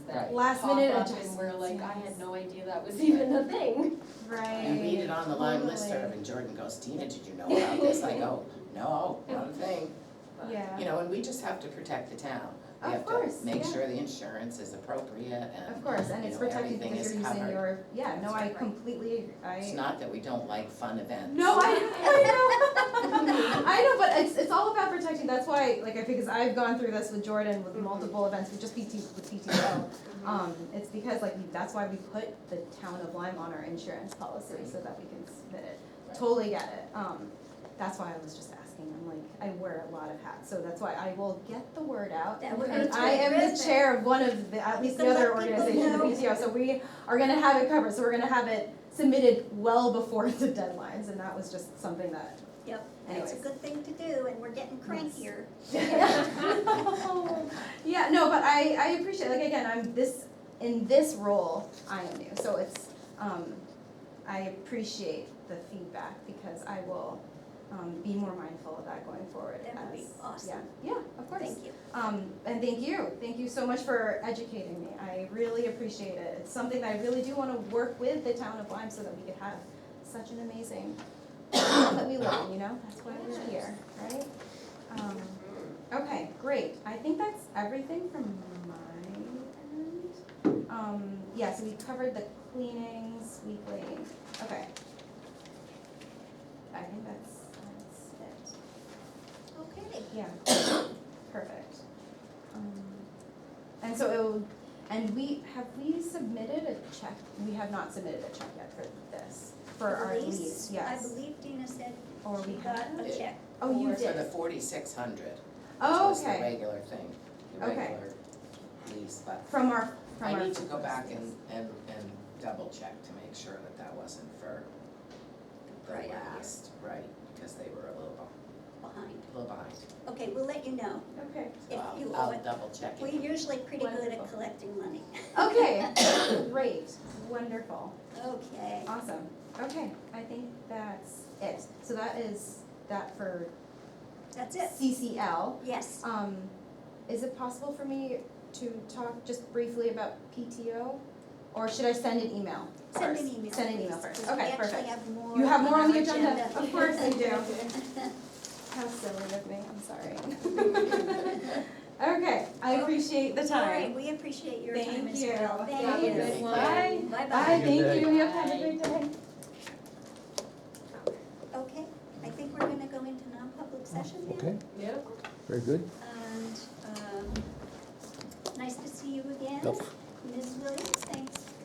last pop minute up and we're adjustments, like, I yes. had no idea that was even a thing. Right. You read it on the Lyme Totally. list serve, and Jordan goes, Tina, did you know about this? I go, no, not a thing. But- You Yeah, know, and we just have to protect the town. Of We have to course, make yeah. sure the insurance is appropriate of and, course, and you it's know, protected everything because is you're using covered. your, yeah, no, I Right. completely, agree. I. it's not that we don't like fun events. No, I, I know. I know, but it's, it's all about protecting, that's why, like, I, because I've gone through this with Jordan Mm-hmm. with multiple events, with just PT, with PTO. Um, it's because like, that's why we put the town of Lyme on our insurance policy, so that we can submit it. Right. Totally get it, um, that's why I was just asking, I'm like, I wear a lot of hats, so that's why I will get the word out. That would be And I am the terrific. chair of one of the, at least Just to another let people organization, the know. PTO, so we are gonna have it covered, so we're gonna have it submitted well before the deadlines, and that was just something that. Yep, Anyways. that's a good thing to do, and we're getting crankier. Yeah, no, but I, I appreciate, like, again, I'm this, in this role, I am new, so it's, um, I appreciate the feedback, because I will, um, be more mindful of that going forward as, That would be awesome. yeah, yeah, of course. Thank you. Um, and thank you, thank you so much for educating me, I really appreciate it, it's something that I really do wanna work with the town of Lyme so that we could have such an amazing, town that we love, you know, that's why we're here, right? Um, okay, great, I think that's everything from my end. Um, yeah, so we covered the cleanings weekly, okay. I think that's, that's it. Okay, Yeah, perfect. Um, And so it will, and we, have we submitted a check? We have not submitted a check yet for this, for our I lease, believe, I yes. believe Dina said Or she we got have? a check. Oh, you Or For the did. forty-six hundred, which Oh, was the okay. regular thing, the Okay. regular lease, but From our, from our. I need to go back first and, lease. and, and double check to make sure that that wasn't for the Right. last, right, because they were a little, beh- Behind. a little behind. Okay, we'll let you know. Okay. So If I'll- you owe I'll it. double check We're it. usually pretty good Wonderful. at collecting money. Okay, great, wonderful, Okay, awesome. Okay, I think that's it. So that is that for that's it. CCL. Yes, Um, is it possible for me to talk just briefly about PTO? Or should I send an email send an first? email. Send an email please, first, 'cause we okay, actually perfect. have more You have more on our the agenda. Of course I do. Thank How silly of me, I'm sorry. Okay, I appreciate the All right, time. we appreciate your Thank time as you. well. Have Thank a you. good one. Bye. Bye-bye. Bye, thank you, day. yep, have a great day. Okay, I think we're gonna go into non-public session now. Okay, Yep. very good. Uh, um,